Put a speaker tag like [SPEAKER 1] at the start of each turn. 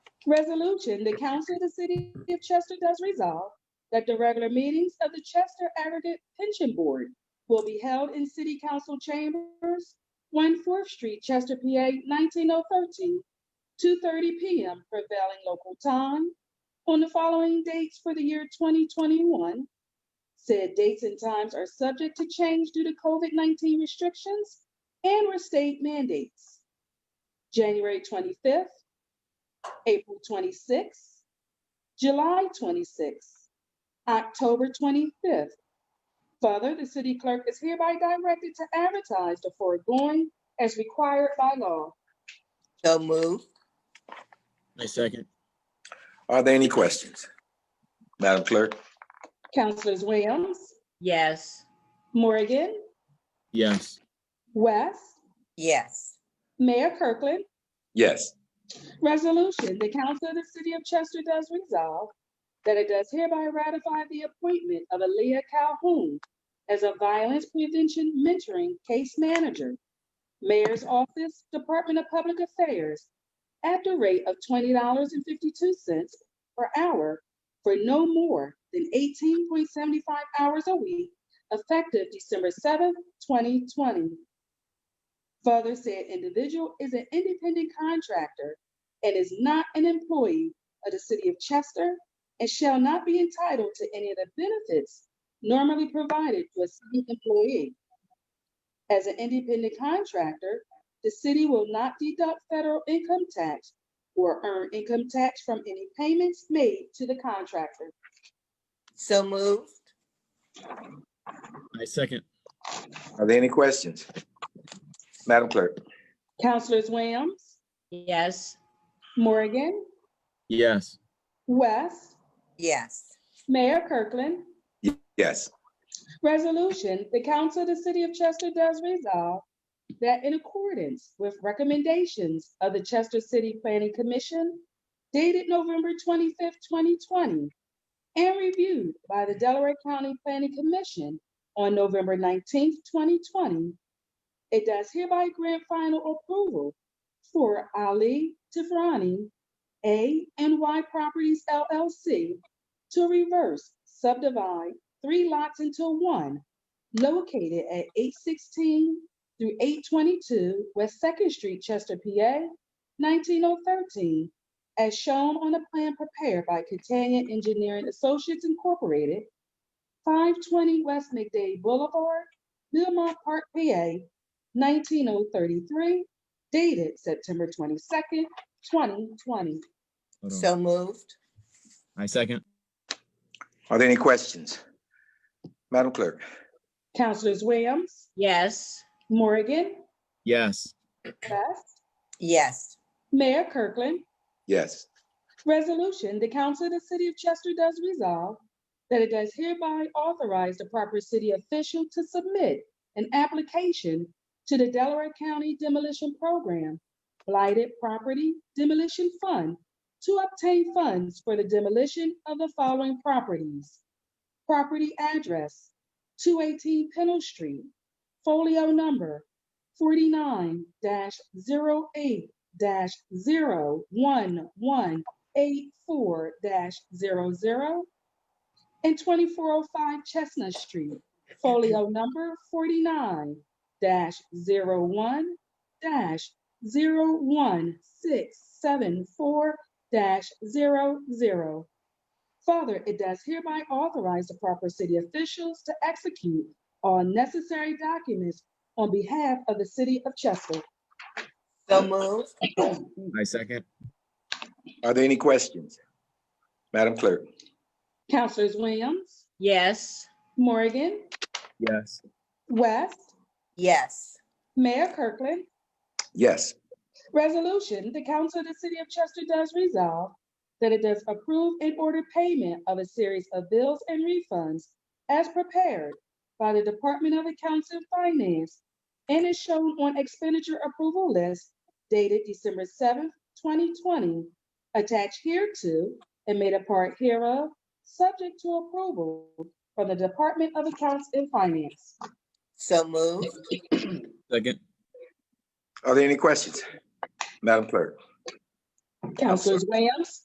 [SPEAKER 1] Resolution, the council of the city of Chester does resolve that the regular meetings of the Chester Aggregate Pension Board will be held in city council chambers, one Fourth Street, Chester, PA, nineteen oh thirteen, two thirty PM prevailing local time on the following dates for the year twenty twenty-one. Said dates and times are subject to change due to COVID-nineteen restrictions and or state mandates. January twenty-fifth, April 26th, July 26th, October 25th. Further, the city clerk is hereby directed to advertise the foregoing as required by law.
[SPEAKER 2] So moved.
[SPEAKER 3] I second.
[SPEAKER 4] Are there any questions? Madam Clerk?
[SPEAKER 1] Councilors Williams,
[SPEAKER 2] Yes.
[SPEAKER 1] Morgan,
[SPEAKER 3] Yes.
[SPEAKER 1] West,
[SPEAKER 2] Yes.
[SPEAKER 1] Mayor Kirkland.
[SPEAKER 4] Yes.
[SPEAKER 1] Resolution, the council of the city of Chester does resolve that it does hereby ratify the appointment of Aaliyah Calhoun as a violence prevention mentoring case manager, mayor's office, Department of Public Affairs, at the rate of twenty dollars and fifty-two cents per hour for no more than eighteen point seventy-five hours a week, effective December seventh, twenty twenty. Further said individual is an independent contractor and is not an employee of the city of Chester and shall not be entitled to any of the benefits normally provided to a city employee. As an independent contractor, the city will not deduct federal income tax or earn income tax from any payments made to the contractor.
[SPEAKER 2] So moved.
[SPEAKER 3] I second.
[SPEAKER 4] Are there any questions? Madam Clerk?
[SPEAKER 1] Councilors Williams,
[SPEAKER 2] Yes.
[SPEAKER 1] Morgan,
[SPEAKER 3] Yes.
[SPEAKER 1] West,
[SPEAKER 2] Yes.
[SPEAKER 1] Mayor Kirkland,
[SPEAKER 4] Yes.
[SPEAKER 1] Resolution, the council of the city of Chester does resolve that in accordance with recommendations of the Chester City Planning Commission dated November twenty-fifth, twenty twenty, and reviewed by the Delaware County Planning Commission on November nineteenth, twenty twenty, it does hereby grant final approval for Ali Tifrani, A and Y Properties LLC, to reverse subdivide three lots into one, located at eight sixteen through eight twenty-two West Second Street, Chester, PA, nineteen oh thirteen, as shown on a plan prepared by Catania Engineering Associates Incorporated, five twenty West McDade Boulevard, Millmont Park, PA, nineteen oh thirty-three, dated September twenty-second, twenty twenty.
[SPEAKER 3] Hold on.
[SPEAKER 2] So moved.
[SPEAKER 3] I second.
[SPEAKER 4] Are there any questions? Madam Clerk?
[SPEAKER 1] Councilors Williams,
[SPEAKER 2] Yes.
[SPEAKER 1] Morgan,
[SPEAKER 3] Yes.
[SPEAKER 1] Best,
[SPEAKER 2] Yes.
[SPEAKER 1] Mayor Kirkland,
[SPEAKER 4] Yes.
[SPEAKER 1] Resolution, the council of the city of Chester does resolve that it does hereby authorize the proper city official to submit an application to the Delaware County Demolition Program Blighted Property Demolition Fund to obtain funds for the demolition of the following properties. Property address, two eighteen Pennell Street, folio number forty-nine 8 one one 84-00 and 2405 Chestnut Street, folio number 49-01-01674-00. Further, it does hereby authorize the proper city officials to execute all necessary documents on behalf of the city of Chester.
[SPEAKER 2] So moved.
[SPEAKER 3] I second.
[SPEAKER 4] Are there any questions? Madam Clerk?
[SPEAKER 1] Councilors Williams,
[SPEAKER 2] Yes.
[SPEAKER 1] Morgan,
[SPEAKER 3] Yes.
[SPEAKER 1] West,
[SPEAKER 2] Yes.
[SPEAKER 1] Mayor Kirkland,
[SPEAKER 4] Yes.
[SPEAKER 1] Resolution, the council of the city of Chester does resolve that it does approve and order payment of a series of bills and refunds as prepared by the Department of Accounts and Finance and is shown on expenditure approval list dated December seventh, twenty twenty, attached hereto and made a part hereof, subject to approval from the Department of Accounts and Finance.
[SPEAKER 2] So moved.
[SPEAKER 3] Second.
[SPEAKER 4] Are there any questions? Madam Clerk?
[SPEAKER 1] Councilors Williams,